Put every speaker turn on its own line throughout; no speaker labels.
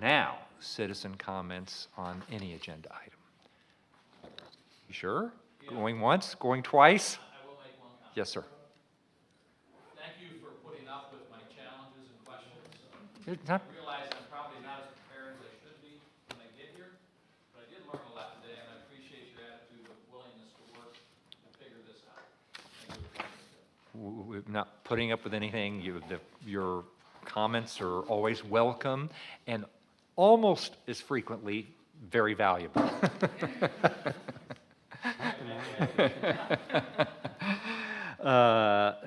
now citizen comments on any agenda item. You sure? Going once, going twice?
I will make one comment.
Yes, sir.
Thank you for putting up with my challenges and questions.
It's
I
not-
realize I'm probably not as prepared as I should be when I get here, but I did learn a lot today, and I appreciate your attitude of willingness to work to figure this out. Thank you.
w- w- not putting up with anything. You, the, your comments are always welcome and almost as frequently very valuable. Uh, uh,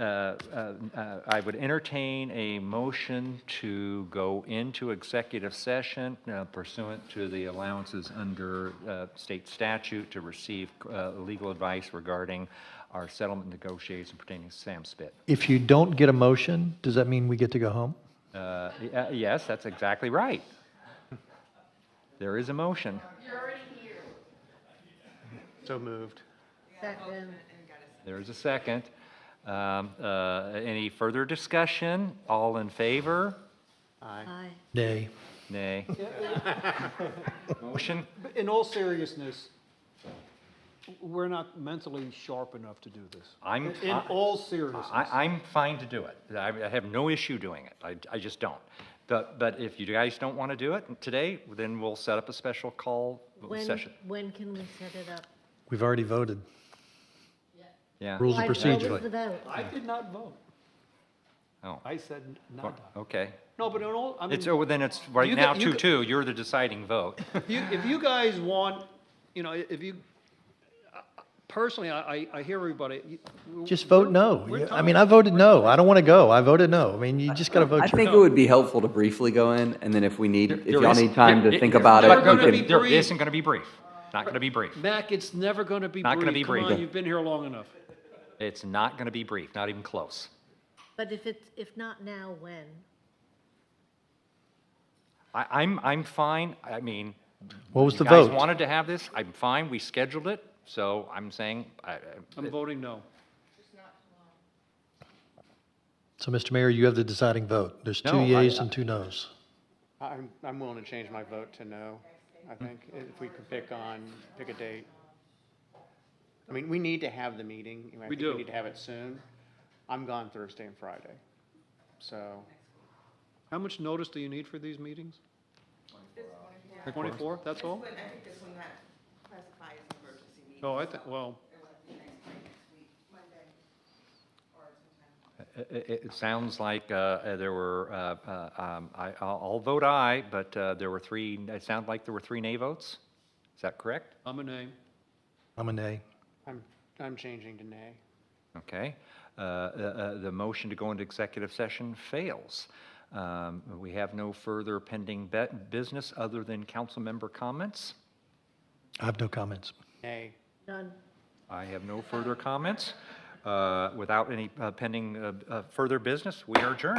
uh, uh, I would entertain a motion to go into executive session uh, pursuant to the allowances under uh, state statute to receive uh, legal advice regarding our settlement negotiations pertaining to Sam Spit.
If you don't get a motion, does that mean we get to go home?
Uh, y- uh, Yes, that's exactly right. There is a motion.
So moved.
Second.
There is a second. Um, uh, Any further discussion? All in favor?
Aye.
Nay.
Nay. Motion?
But In all seriousness, we're not mentally sharp enough to do this.
I'm-
In- In
I-
all seriousness.
I, I'm fine to do it. I, I have no issue doing it. I, I just don't. But, but if you guys don't want to do it today, then we'll set up a special call
When,
session.
when can we set it up?
We've already voted.
Yeah.
Rules of
Like, What was the
procedure.
vote?
I did not vote.
Oh,
I said nada.
okay.
No, but in all, I mean,
It's, oh, then it's right
You
now
got- you got-
two-two. You're the deciding vote.
you- if you guys want, you know, if you, personally, I, I- I hear everybody. you-
Just vote
we're-
no.
we're
Yeah, I
tired.
mean, I voted no. I don't want to go. I voted no. I mean, you just got to vote
I
your.
think it would be helpful to briefly go in, and then if we need, if
There
y'all
is-
need time
there-
to think about
Not
there-
it,
gonna
we
be
can.
There
brief.
isn't going to be brief. Not going to be brief.
Mac, it's never going to be brief.
Not gonna be
Come
brief.
on, you've been here long enough.
It's not going to be brief, not even close.
But if it's, if not now, when?
I, I'm, I'm fine. I mean,
What was the
you guys
vote?
wanted to have this. I'm fine. We scheduled it. So I'm saying, I,
I'm voting no.
So, Mr. Mayor, you have the deciding vote. There's two
No, I-
yays and two nos.
I'm, I'm willing to change my vote to no, I think, if we could pick on, pick a date. I mean, we need to have the meeting. I think
do.
We need to have it soon. I'm gone Thursday and Friday, so,
How much notice do you need for these meetings? 24, that's all?
But I think this one that classifies emergency meeting.
Oh, I think, well,
It would have to be next week, next week, Monday, or sometime.
It- It, it sounds like uh, uh, there were, uh, uh, um, I, I'll I'll vote aye, but uh, there were three, it sounded like there were three nay votes? Is that correct?
I'm a name.
I'm a nay.
I'm, I'm changing to nay.
Okay. Uh, uh, uh, The motion to go into executive session fails. Um, We have no further pending bet- business other than council member comments.
I have no comments.
Nay.
Done.
I have no further comments. Uh, Without any uh, pending uh, uh, further business, we are adjourned.